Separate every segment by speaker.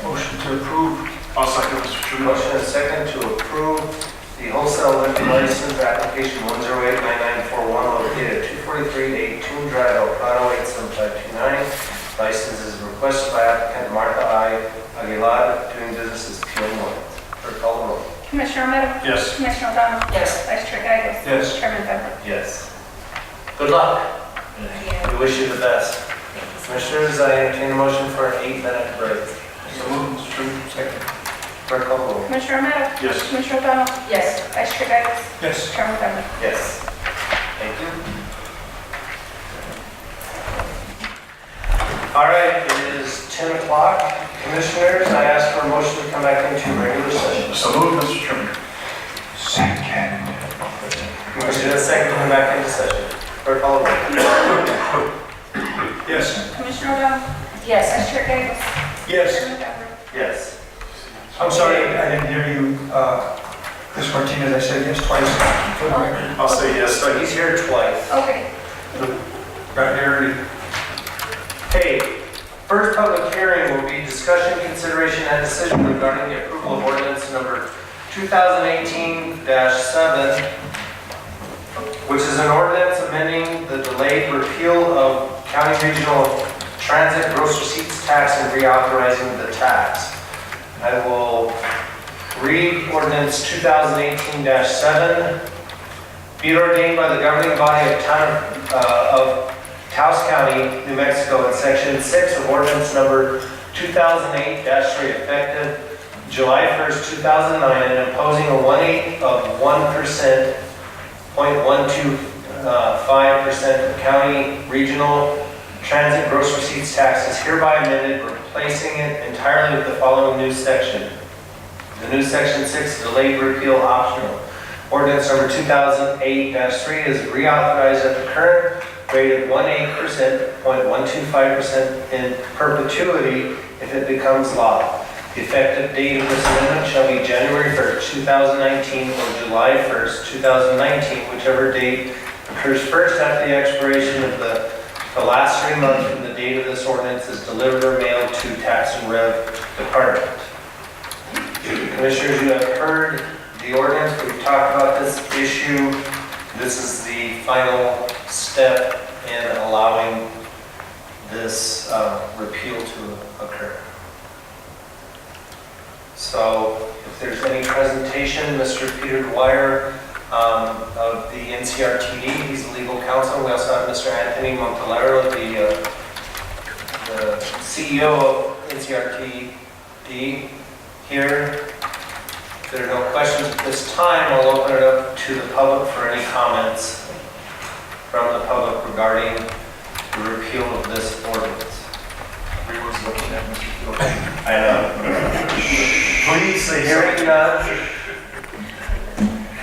Speaker 1: to approve.
Speaker 2: I'll second, Mr. Chairman.
Speaker 3: Motion is second to approve the wholesale liquor license application 1089941 located at 243 82 Drive, El Prado, 87529. License is requested by applicant Martha I. Aguilar, doing business as PM Wines. Clerk call the roll.
Speaker 4: Commissioner Romero?
Speaker 2: Yes.
Speaker 4: Commissioner O'Donnell?
Speaker 3: Yes.
Speaker 4: Vice Chair Gagos?
Speaker 2: Yes.
Speaker 4: Chairman Bender?
Speaker 3: Yes. Good luck. We wish you the best. Commissioners, I entertain a motion for an eight-minute break.
Speaker 2: So moved, Mr. Chairman. Second.
Speaker 3: Clerk call the roll.
Speaker 4: Commissioner Romero?
Speaker 2: Yes.
Speaker 4: Commissioner O'Donnell?
Speaker 5: Yes.
Speaker 4: Vice Chair Gagos?
Speaker 2: Yes.
Speaker 4: Chairman Bender?
Speaker 3: Yes. Thank you. All right, it is 10 o'clock. Commissioners, I ask for a motion to come back into regular session.
Speaker 2: So moved, Mr. Chairman.
Speaker 3: Motion is second to come back into session. Clerk call the roll.
Speaker 2: Yes.
Speaker 4: Commissioner O'Donnell?
Speaker 5: Yes.
Speaker 4: Vice Chair Gagos?
Speaker 1: Yes.
Speaker 4: Chairman Bender?
Speaker 3: Yes.
Speaker 1: I'm sorry, I didn't hear you, uh, Ms. Martinez, I said yes twice. For the record.
Speaker 2: I'll say yes,
Speaker 3: So
Speaker 2: second.
Speaker 3: he's here twice.
Speaker 4: Okay.
Speaker 1: Right here,
Speaker 3: Hey, first public hearing will be discussion, consideration, and decision regarding the approval of ordinance number 2018-7, which is an ordinance amending the delayed repeal of county regional transit gross receipts tax and reauthorizing the tax. I will read ordinance 2018-7. Be it ordained by the governing body of town, uh, of Taos County, New Mexico, in section six of ordinance number 2008-3, effective July 1st, 2009, and imposing a one-eighth of 1%, .125% uh, of county regional transit gross receipts tax is hereby amended, replacing it entirely with the following new section. The new section six, delayed repeal optional. Ordinance number 2008-3 is reauthorized at the current rate of 1.8%, 0.125% in perpetuity if it becomes law. The effective date of this amendment shall be January 1st, 2019, or July 1st, 2019, whichever date occurs first after the expiration of the, the last three months from the date of this ordinance is delivered or mailed to Tax and Rev Department. Commissioners, you have heard the ordinance, we've talked about this issue. This is the final step in allowing this uh, repeal to occur. So if there's any presentation, Mr. Peter Dwyer um, of the NCRTD, he's legal counsel. We also have Mr. Anthony Montalero, the uh, the CEO of NCRTD here. If there are no questions at this time, I'll open it up to the public for any comments from the public regarding the repeal of this ordinance.
Speaker 2: Everyone's looking at Mr. Chairman.
Speaker 3: I know. Please, the hearing none.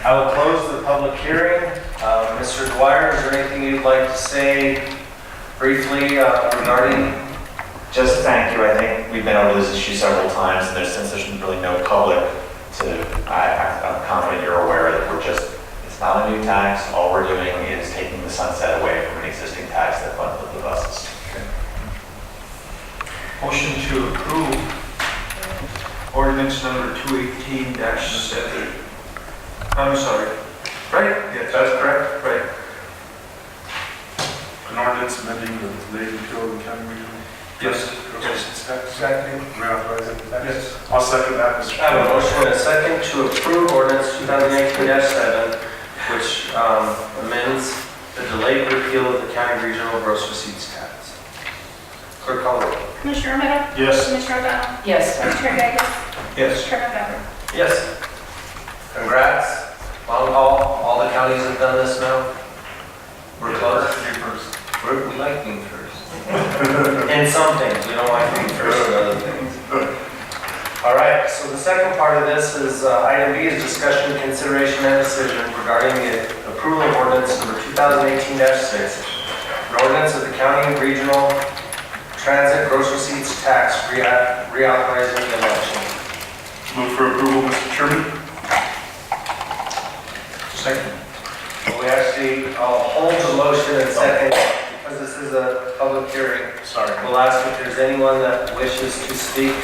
Speaker 3: I will close the public hearing. Uh, Mr. Dwyer, is there anything you'd like to say briefly uh, regarding?
Speaker 6: Just thank you. I think we've been over this issue several times, and there's, since there's really no public to, I, I- I'm confident you're aware that we're just, it's not a new tax. All we're doing is taking the sunset away from an existing tax that funded the buses.
Speaker 1: Motion to approve ordinance number 218-7. I'm sorry, right? Yes, that's correct, right.
Speaker 2: An ordinance amending the Lady Field and County Regional.
Speaker 1: Yes.
Speaker 2: Yes. Tax.
Speaker 1: Exactly.
Speaker 2: Reauthorize it.
Speaker 1: Yes.
Speaker 2: I'll second that, Mr.
Speaker 3: I have a
Speaker 2: Chairman.
Speaker 3: motion and a second to approve ordinance 2019-7, which um, amends the delayed repeal of the county regional gross receipts tax. Clerk call the roll.
Speaker 4: Commissioner Romero?
Speaker 2: Yes.
Speaker 4: Commissioner O'Donnell?
Speaker 5: Yes.
Speaker 4: Vice Chair Gagos?
Speaker 1: Yes.
Speaker 4: Chairman Bender?
Speaker 3: Yes. Congrats. Long haul, all the counties have done this now. We're close.
Speaker 2: You first.
Speaker 3: We're- We like being first. In some things, we don't like being first in other things. All right, so the second part of this is, uh, item B is discussion, consideration, and decision regarding the approval of ordinance number 2018-6, an ordinance of the county regional transit gross receipts tax rea- reauthorizing the election.
Speaker 2: Move for approval, Mr. Chairman.
Speaker 1: Second.
Speaker 3: We actually, I'll hold the motion and second, because this is a public hearing.
Speaker 2: Sorry.
Speaker 3: We'll ask if there's anyone that wishes to speak